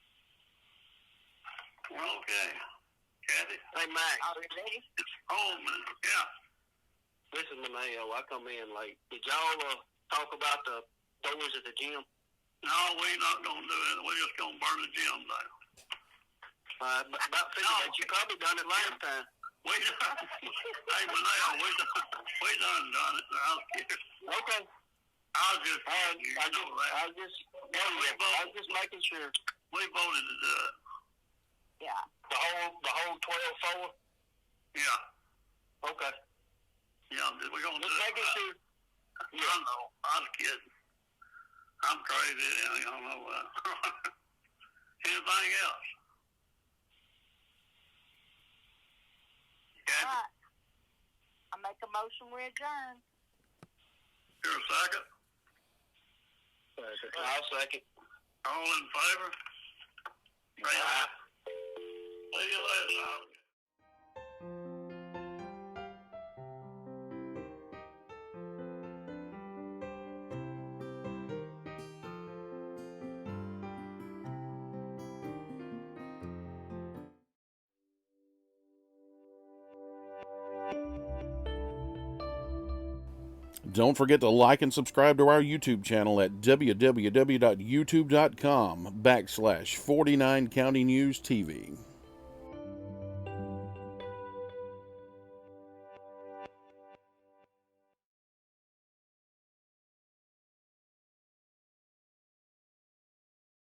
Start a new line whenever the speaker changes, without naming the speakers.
Okay. Kathy,
Hey, Max,
Are we ready?
it's Coleman. Oh, Yeah.
listen to me. Oh, I come in late. Did y'all uh, talk about the doors at the gym?
No, we're not going to do it. We're just going to burn the gym down.
Uh, b- about figured that you probably done it last time.
We done, hey, Manel, we done, we done done it. I was kidding.
Okay.
I was just
All right.
kidding. You
I just,
know that.
I was just, I was just making sure.
We voted to do it.
Yeah.
The whole, the whole twelve four.
Yeah.
Okay.
Yeah, we're going to do
Just
it.
making sure.
Yeah. I know. I was kidding. I'm crazy. I don't know that. Anything else?
All
Kathy,
right. I make a motion we adjourn.
you're a second.
I'll second.
All in favor? Raise your hand. See you later. Howard.
Don't forget to like and subscribe to our YouTube channel at www.youtube.com backslash 49 County News TV.